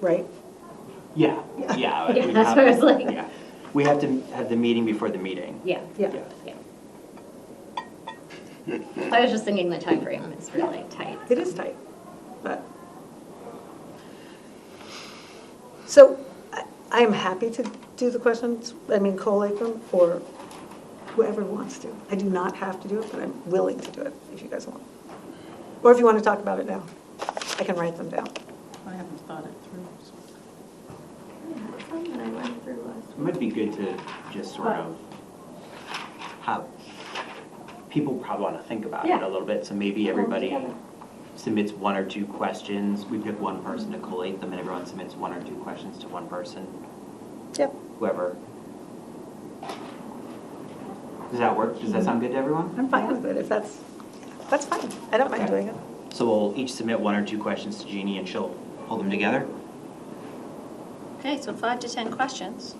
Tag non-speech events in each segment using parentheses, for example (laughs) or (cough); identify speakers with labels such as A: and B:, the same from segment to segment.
A: right?
B: Yeah,
A: Yeah.
B: yeah.
C: (laughs) Yeah,
B: we
C: that's
B: have-
C: what I was like.
B: yeah. We have to have the meeting before the meeting.
C: Yeah,
A: Yeah.
C: yeah. I was just thinking the time frame is really tight.
A: It is tight, but. So I- I am happy to do the questions, I mean, collate them, or whoever wants to. I do not have to do it, but I'm willing to do it if you guys want. Or if you want to talk about it now, I can write them down.
D: I haven't thought it through. so-
B: It might be good to just sort of have, people probably want to think about it
C: Yeah.
B: a little bit, so maybe everybody
C: together.
B: submits one or two questions. We pick one person to collate them, and everyone submits one or two questions to one person,
A: Yep.
B: whoever. Does that work? Does that sound good to everyone?
C: Mm-hmm.
A: I'm fine with it, if that's, that's fine. I don't mind doing it.
B: So we'll each submit one or two questions to Jeannie, and she'll pull them together?
E: Okay, so five to 10 questions.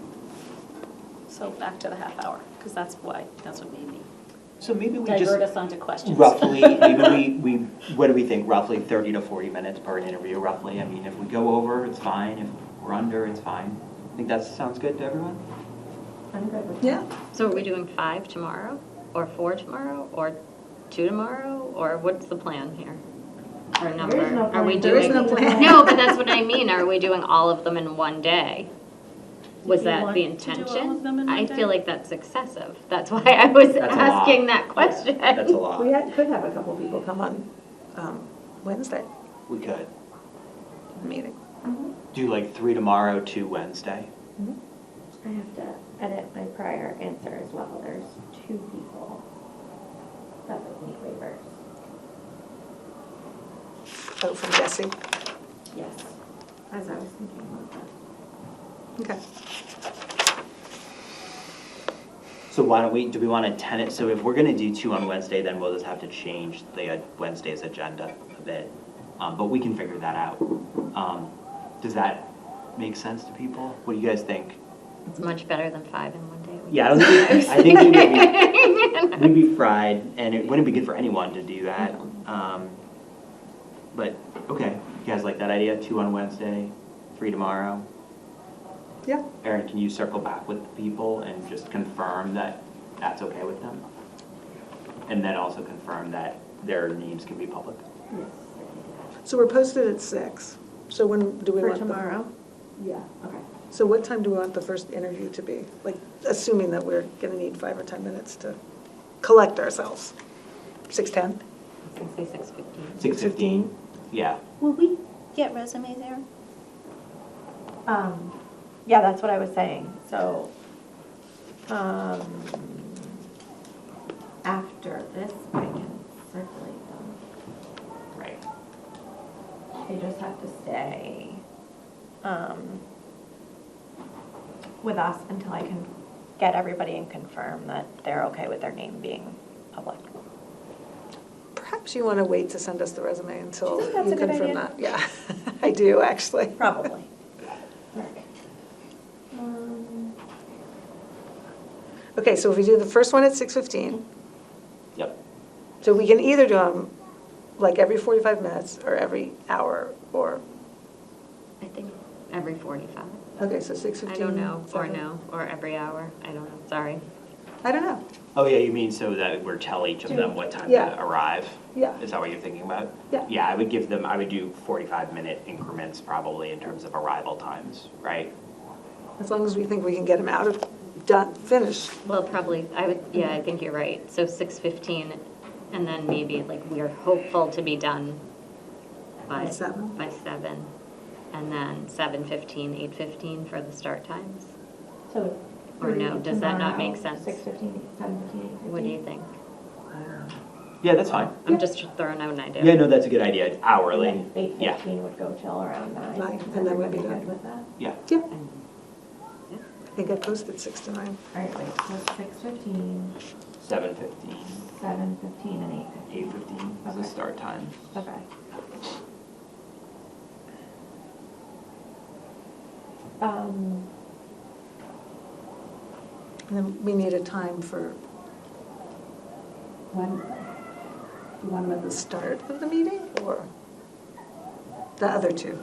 E: So back to the half hour, because that's why, that's what made me
B: So maybe we just.
E: divert us onto questions. (laughs)
B: Roughly, maybe we, we, what do we think, roughly 30 to 40 minutes per interview roughly? I mean, if we go over, it's fine, if we're under, it's fine. I think that sounds good to everyone?
A: Yeah.
C: So are we doing five tomorrow, or four tomorrow, or two tomorrow, or what's the plan here? Or number? Are we
A: There is
C: doing?
A: no plan.
C: (laughs) No, but that's what I mean, are we doing all of them in one day? Was
D: Did you
C: that
D: want
C: the
D: to do all
C: intention?
D: of them in one
C: I
D: day?
C: feel like that's excessive, that's why I was
B: That's a lot.
C: asking that
B: Yeah,
C: question.
B: That's a
C: (laughs)
B: lot.
A: We had- could have a couple people come on um, Wednesday
B: We could.
A: meeting.
B: Do like three tomorrow, two Wednesday.
F: I have to edit my prior answer as well. There's two people that would need waivers.
A: Oh, from Jesse.
F: Yes. As I was thinking about that.
A: Okay.
B: So why don't we, do we want to tenant, so if we're going to do two on Wednesday, then we'll just have to change the uh, Wednesday's agenda a bit. Um, But we can figure that out. Um, Does that make sense to people? What do you guys think?
C: It's much better than five in one day.
B: Yeah, I don't think, I think we
C: (laughs)
B: would be, we'd be fried, and it wouldn't be good for anyone to do that. Um, But, okay, you guys like that idea, two on Wednesday, three tomorrow?
A: Yeah.
B: Erin, can you circle back with the people and just confirm that that's okay with them? And then also confirm that their names can be public?
F: Yes.
A: So we're posted at six. So when do we
F: For
A: want? the-
F: tomorrow? Yeah. Okay.
A: So what time do we want the first interview to be? Like, assuming that we're gonna need five or 10 minutes to collect ourselves. 6:10?
C: Say six fifteen.
B: Six fifteen? Yeah,
E: Will we get resumes there?
F: Um, yeah, that's what I was saying, so, um, after this, I can circulate them.
B: right.
F: They just have to stay, um, with us until I can get everybody and confirm that they're okay with their name being
D: (laughs)
F: public.
A: Perhaps you want to wait to send us the resume until
F: think that's
A: you
F: a good
A: confirm
F: idea?
A: that. Yeah, (laughs) I do, actually.
F: Probably. Um,
A: Okay, so if we do the first one at 6:15,
B: Yep,
A: so we can either do them like every 45 minutes or every hour or,
C: I think every forty-five.
A: okay, so 6:15.
C: I don't know, or
A: seven.
C: no, or every hour, I don't know, sorry.
A: I don't know.
B: Oh, yeah, you mean so that we're tell each of them what time
A: Yeah.
B: to arrive?
A: Yeah.
B: Is that what you're thinking about?
A: Yeah.
B: Yeah, I would give them, I would do forty-five minute increments probably in terms of arrival times, right?
A: As long as we think we can get them out of, done, finished.
C: Well, probably, I would, yeah, I think you're right, so six fifteen, and then maybe, like, we are hopeful to be done by.
A: By seven?
C: By seven, and then seven fifteen, eight fifteen for the start times,
F: So.
C: Or no, does that not make sense?
F: Six fifteen, seven fifteen.
C: what do you think?
B: Yeah, that's fine.
C: I'm just throwing out an idea.
B: Yeah, no, that's a good idea, hourly.
F: Eight
B: Yeah,
F: fifteen would go till around nine.
A: Nine,
F: Is
A: and then we'd be
F: everybody
A: done.
F: good with that?
B: yeah.
A: Yeah. I think I posted six to nine.
F: All right, wait, so six fifteen,
B: Seven fifteen,
F: seven fifteen, and eight
B: eight
F: fifteen.
B: fifteen is the
F: Okay.
B: start time.
F: Okay. Um,
A: And then we need a time for
F: when,
A: the start of the meeting or the other two?